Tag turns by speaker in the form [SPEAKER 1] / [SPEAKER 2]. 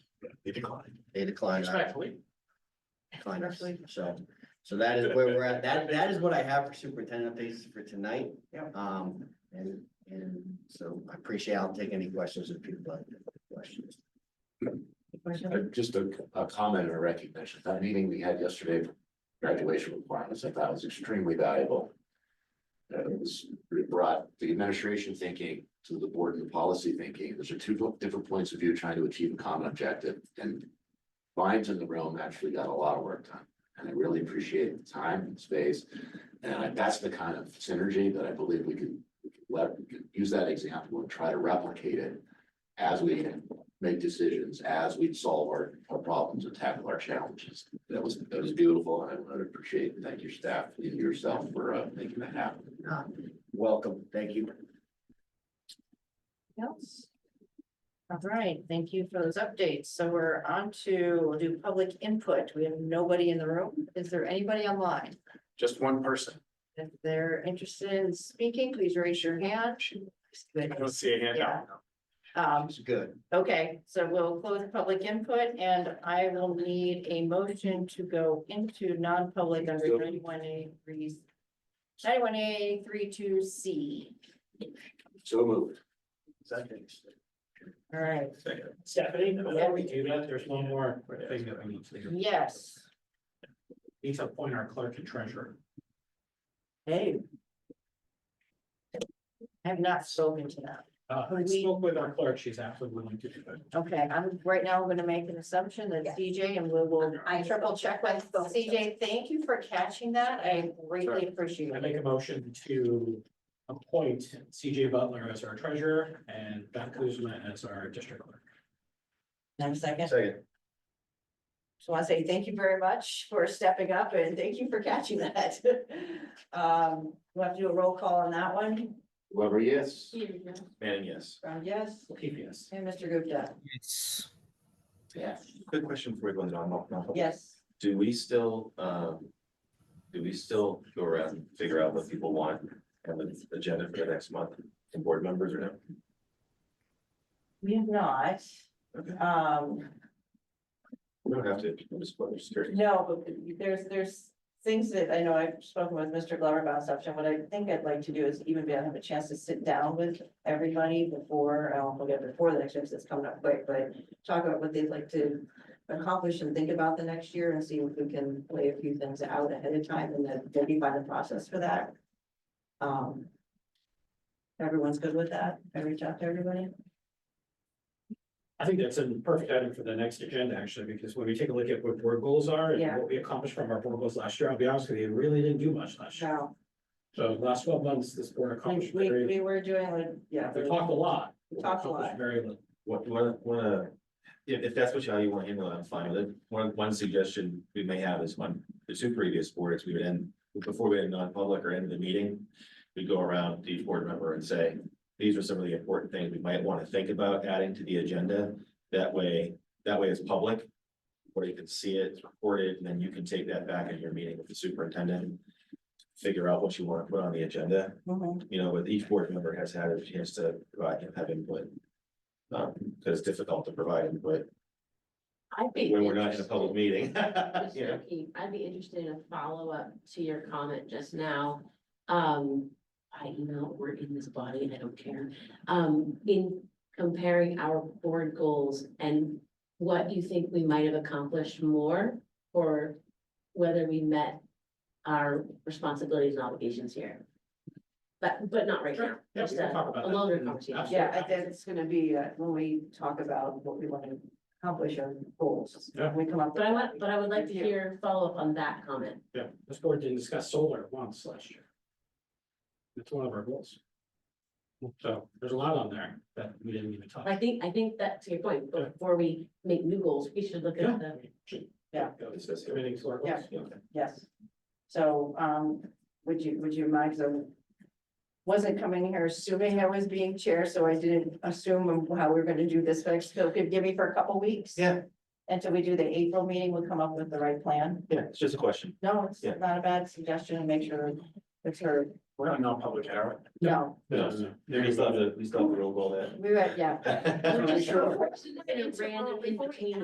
[SPEAKER 1] They declined.
[SPEAKER 2] they declined,
[SPEAKER 1] Respectfully.
[SPEAKER 2] declined us, so. So that is where we're at, that, that is what I have for superintendent updates for tonight.
[SPEAKER 1] Yep.
[SPEAKER 2] Um, and, and so I appreciate, I'll take any questions if people have questions.
[SPEAKER 3] Uh, Just a, a comment or recognition, that meeting we had yesterday, for graduation requirements, I thought was extremely valuable. Uh, It was, it brought the administration thinking to the board and the policy thinking, those are two different points of view trying to achieve a common objective and. Minds in the room actually got a lot of work done, and I really appreciate the time and space. And I- that's the kind of synergy that I believe we can, we can let, we can use that example and try to replicate it. As we make decisions as we solve our, our problems and tackle our challenges. That was, that was beautiful, and I would appreciate, and thank your staff and yourself for, uh, making that happen.
[SPEAKER 2] Uh, Welcome, thank you.
[SPEAKER 4] else? All right, thank you for those updates. So we're on to, we'll do public input. We have nobody in the room. Is there anybody online?
[SPEAKER 1] Just one person.
[SPEAKER 4] If they're interested in speaking, please raise your hand.
[SPEAKER 1] I don't see a hand up.
[SPEAKER 4] Um,
[SPEAKER 2] It's good.
[SPEAKER 4] okay, so we'll close public input and I will need a motion to go into non-public under ninety-one A three. Ninety-one A three two C.
[SPEAKER 3] So moved.
[SPEAKER 4] All right,
[SPEAKER 1] Second.
[SPEAKER 5] Stephanie, before we do that, there's one more thing that we need to do.
[SPEAKER 4] yes.
[SPEAKER 5] Need to appoint our clerk and treasurer.
[SPEAKER 4] Hey. I have not spoken to them.
[SPEAKER 5] Uh, I spoke with our clerk, she's absolutely willing to do it.
[SPEAKER 4] Okay, I'm, right now, I'm gonna make an assumption that
[SPEAKER 6] Yeah.
[SPEAKER 4] CJ and we will
[SPEAKER 6] I
[SPEAKER 4] triple check with
[SPEAKER 6] spoke to
[SPEAKER 4] CJ. Thank you for catching that. I greatly appreciate
[SPEAKER 5] I
[SPEAKER 4] it.
[SPEAKER 5] make a motion to appoint CJ Butler as our treasurer and Beth Kuzma as our district clerk.
[SPEAKER 6] Now, second,
[SPEAKER 2] Second.
[SPEAKER 4] Just wanna say thank you very much for stepping up and thank you for catching that. Um, we'll have to do a roll call on that one.
[SPEAKER 3] Whoever, yes.
[SPEAKER 1] Man, yes.
[SPEAKER 4] Brown, yes,
[SPEAKER 5] PPS.
[SPEAKER 4] and Mr. Gupta,
[SPEAKER 1] Good question for everyone on, on.
[SPEAKER 4] yes.
[SPEAKER 1] Do we still, um, do we still go around and figure out what people want and the agenda for the next month and board members or no?
[SPEAKER 4] We have not,
[SPEAKER 1] Okay,
[SPEAKER 4] um,
[SPEAKER 1] we don't have to, I'm just, I'm just curious.
[SPEAKER 4] No, but there's, there's things that I know I've spoken with Mr. Glover about stuff, and what I think I'd like to do is even be able to have a chance to sit down with everybody before, I won't forget before the next year, 'cause it's coming up quick, but talk about what they'd like to accomplish and think about the next year and see if we can lay a few things out ahead of time and then maybe find the process for that. Um. Everyone's good with that? I reach out to everybody?
[SPEAKER 5] I think that's a perfect item for the next agenda, actually, because when we take a look at what board goals are
[SPEAKER 4] Yeah.
[SPEAKER 5] and what we accomplished from our board goals last year, I'll be honest with you, we really didn't do much last year.
[SPEAKER 4] No,
[SPEAKER 5] So the last twelve months, this board
[SPEAKER 4] we,
[SPEAKER 5] accomplished
[SPEAKER 4] we
[SPEAKER 5] very,
[SPEAKER 4] we were doing, like, yeah.
[SPEAKER 5] we talked a lot.
[SPEAKER 4] Talked a lot.
[SPEAKER 5] accomplished Very little.
[SPEAKER 1] What, one, one, uh, if, if that's what you, how you want to handle it, I'm fine with it. One, one suggestion we may have is when the two previous boards, we would end, before we had non-public or end the meeting, we go around to each board member and say, these are some of the important things we might want to think about adding to the agenda. That way, that way it's public, where you can see it, it's recorded, and then you can take that back in your meeting with the superintendent. Figure out what you want to put on the agenda,
[SPEAKER 4] Mhm.
[SPEAKER 1] you know, with each board member has had a chance to provide, have input. Um, because it's difficult to provide input
[SPEAKER 7] I'd be.
[SPEAKER 1] when we're not in a
[SPEAKER 7] interested-
[SPEAKER 1] public meeting.
[SPEAKER 7] just
[SPEAKER 1] Yeah.
[SPEAKER 7] looking- I'd be interested in a follow-up to your comment just now. Um, I know we're in this body and I don't care. Um, in comparing our board goals and what you think we might have accomplished more or whether we met our responsibilities and obligations here. But, but not right now.
[SPEAKER 5] Sure. Yeah, we
[SPEAKER 7] Just
[SPEAKER 5] can
[SPEAKER 7] a-
[SPEAKER 5] talk about
[SPEAKER 7] a
[SPEAKER 5] that.
[SPEAKER 7] longer conversation.
[SPEAKER 5] Absolutely.
[SPEAKER 4] Yeah, I think it's gonna be, uh, when we talk about what we want to accomplish our goals,
[SPEAKER 5] Yeah.
[SPEAKER 4] we come up.
[SPEAKER 7] But I want, but I would like to
[SPEAKER 4] Yeah.
[SPEAKER 7] hear follow-up on that comment.
[SPEAKER 5] Yeah, this board didn't discuss solar once last year. It's one of our goals. So there's a lot on there that we didn't even talk.
[SPEAKER 7] I think, I think that to your point, before we make new goals, we should look
[SPEAKER 5] Yeah.
[SPEAKER 7] at the,
[SPEAKER 4] Yeah.
[SPEAKER 1] It's just-
[SPEAKER 5] Everything's our goals.
[SPEAKER 4] Yeah. Yes. So, um, would you, would you mind, so wasn't coming here assuming I was being chair, so I didn't assume how we were gonna do this, but so could give me for a couple weeks.
[SPEAKER 1] Yeah.
[SPEAKER 4] Until we do the April meeting, we'll come up with the right plan.
[SPEAKER 1] Yeah, it's just a question.
[SPEAKER 4] No, it's
[SPEAKER 1] Yeah.
[SPEAKER 4] not a bad suggestion, and make sure it's heard.
[SPEAKER 1] We're not non-public, are
[SPEAKER 4] No,
[SPEAKER 5] No, no, no.
[SPEAKER 1] we? We still have the, we still have the roll call there.
[SPEAKER 4] we were, yeah.
[SPEAKER 7] We're
[SPEAKER 4] Sure.
[SPEAKER 7] just- we're just in a random
[SPEAKER 4] Before we-
[SPEAKER 7] invitation.